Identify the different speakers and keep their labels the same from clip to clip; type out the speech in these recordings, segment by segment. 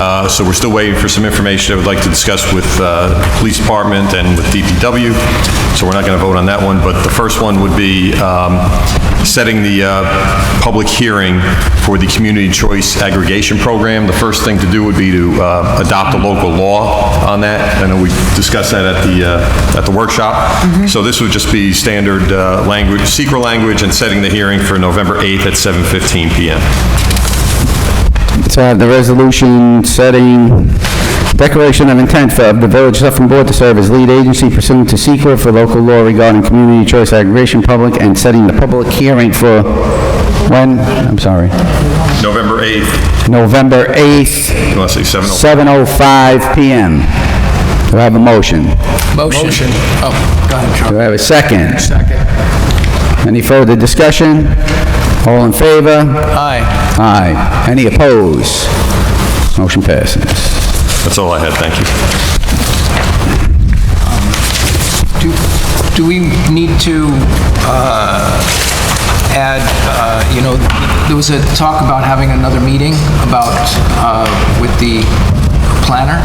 Speaker 1: Uh, So we're still waiting for some information I would like to discuss with uh, Police Department and with DPW, so we're not going to vote on that one, but the first one would be um, setting the uh, public hearing for the Community Choice Aggregation Program. The first thing to do would be to uh, adopt a local law on that. I know we discussed that at the, uh, at the workshop. So this would just be standard uh, language, secret language, and setting the hearing for November 8th at 7:15 PM.
Speaker 2: to have uh, the resolution setting declaration of intent for the Village Suffolk Board to serve as lead agency pursuant to SEQA for local law regarding community choice aggregation public and setting the public hearing for, when? I'm sorry.
Speaker 1: November 8th,
Speaker 2: November oh 8th,
Speaker 1: you want to say 7:05?
Speaker 2: 7:05 PM. Do I have a motion? Do
Speaker 3: Motion. Oh, go ahead, Charlie.
Speaker 2: I have a second?
Speaker 3: Second.
Speaker 2: Any further discussion? All in favor?
Speaker 3: Aye.
Speaker 2: Aye. Any opposed? Motion passes.
Speaker 1: That's all I had, thank you.
Speaker 3: Do, do we need to uh, add, uh, you know, there was a talk about having another meeting about, uh, with the planner?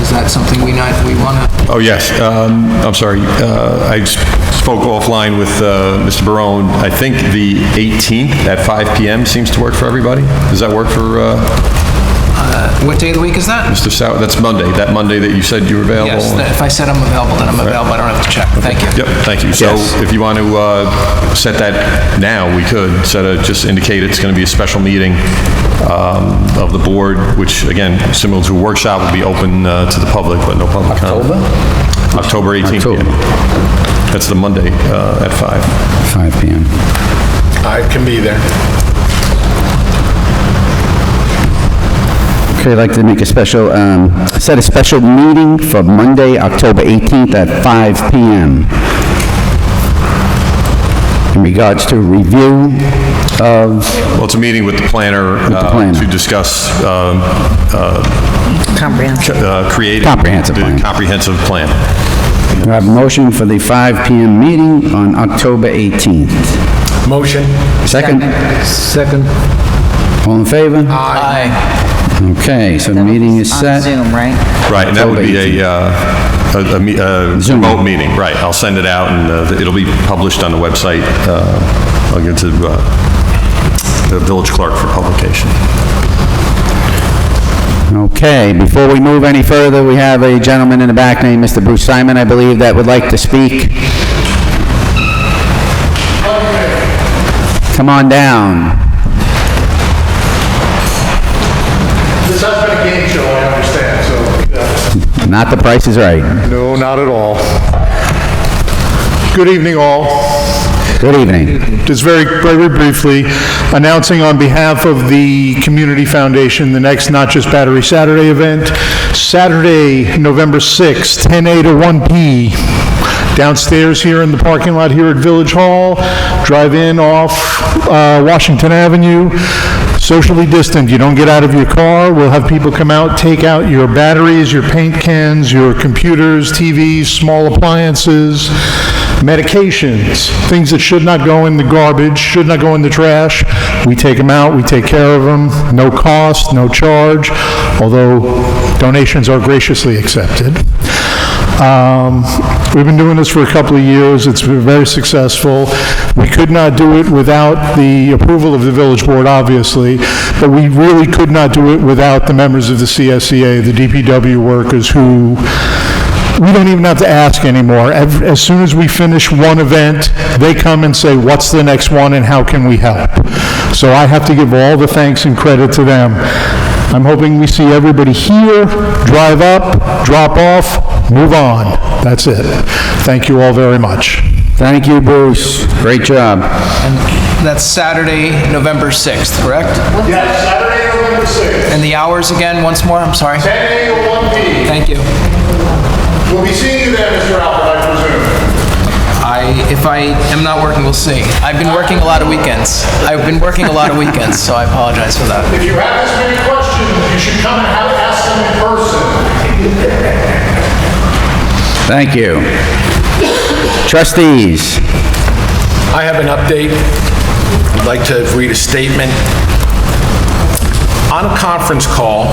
Speaker 3: Is that something we not, we want to?
Speaker 1: Oh, yes, um, I'm sorry, uh, I spoke offline with uh, Mr. Barone. I think the 18th at 5 PM seems to work for everybody. Does that work for uh,
Speaker 3: What day of the week is that?
Speaker 1: Mr. Sau, that's Monday, that Monday that you said you were available?
Speaker 3: Yes, that- if I said I'm available, then I'm available, I don't have to check. Thank you.
Speaker 1: Yep, thank you. So
Speaker 2: Yes.
Speaker 1: if you want to uh, set that now, we could, set a, just indicate it's going to be a special meeting um, of the board, which, again, similar to a workshop, will be open uh, to the public, but no public comment. October? October 18th.
Speaker 2: October.
Speaker 1: yeah. That's the Monday uh, at five.
Speaker 2: 5 PM.
Speaker 4: I can be there.
Speaker 2: Okay, I'd like to make a special, um, set a special meeting for Monday, October 18th at 5 PM in regards to review of,
Speaker 1: Well, it's a meeting with the planner uh,
Speaker 2: planner.
Speaker 1: to discuss um,
Speaker 5: Comprehensive.
Speaker 1: uh, creating...
Speaker 2: Comprehensive
Speaker 1: the
Speaker 2: plan.
Speaker 1: Comprehensive plan.
Speaker 2: do I have a motion for the 5 PM meeting on October 18th?
Speaker 4: Motion.
Speaker 2: Second?
Speaker 3: Second.
Speaker 2: All in favor?
Speaker 3: Aye.
Speaker 2: Okay, so the meeting is
Speaker 5: On
Speaker 2: set.
Speaker 5: Zoom, right?
Speaker 1: Right, and that would
Speaker 2: October
Speaker 1: be a, uh, a, a me- a
Speaker 2: Zoom.
Speaker 1: remote meeting, right. I'll send it out, and uh, it'll be published on the website. uh, I'll give it to uh, the village clerk for publication.
Speaker 2: Okay, before we move any further, we have a gentleman in the back named Mr. Bruce Simon, I believe, that would like to speak. Come on down.
Speaker 6: This has been a game show, I understand, so.
Speaker 2: Not the Price is Right.
Speaker 6: No, not at all. Good evening, all.
Speaker 2: Good evening.
Speaker 6: Just very, very briefly, announcing on behalf of the Community Foundation, the next Not Just Battery Saturday event, Saturday, November 6th, 10 a to 1 p. Downstairs here in the parking lot here at Village Hall, drive in off uh, Washington Avenue socially distant, you don't get out of your car, we'll have people come out, take out your batteries, your paint cans, your computers, TVs, small appliances, medications, things that should not go in the garbage, should not go in the trash. We take them out, we take care of them, no cost, no charge, although donations are graciously accepted. Um, We've been doing this for a couple of years, it's been very successful. We could not do it without the approval of the village board, obviously, but we really could not do it without the members of the CSEA, the DPW workers who, we don't even have to ask anymore. Ev- As soon as we finish one event, they come and say, "What's the next one and how can we help?" So I have to give all the thanks and credit to them. I'm hoping we see everybody here, drive up, drop off, move on. That's it. Thank you all very much.
Speaker 2: Thank you, Bruce. Great job.
Speaker 3: And that's Saturday, November 6th, correct?
Speaker 4: Yes, Saturday, November 6th,
Speaker 3: And the hours again, once more, I'm sorry.
Speaker 4: 10 a to 1 p.
Speaker 3: Thank you.
Speaker 4: We'll be seeing you there, Mr. Albert, I presume.
Speaker 3: I, if I am not working, we'll see. I've been working a lot of weekends. I've been working a lot of weekends, so I apologize for that.
Speaker 4: If you have this many questions, you should come and have, ask them in person.
Speaker 2: Thank you. Trustees,
Speaker 7: I have an update. I'd like to read a statement. On a conference call,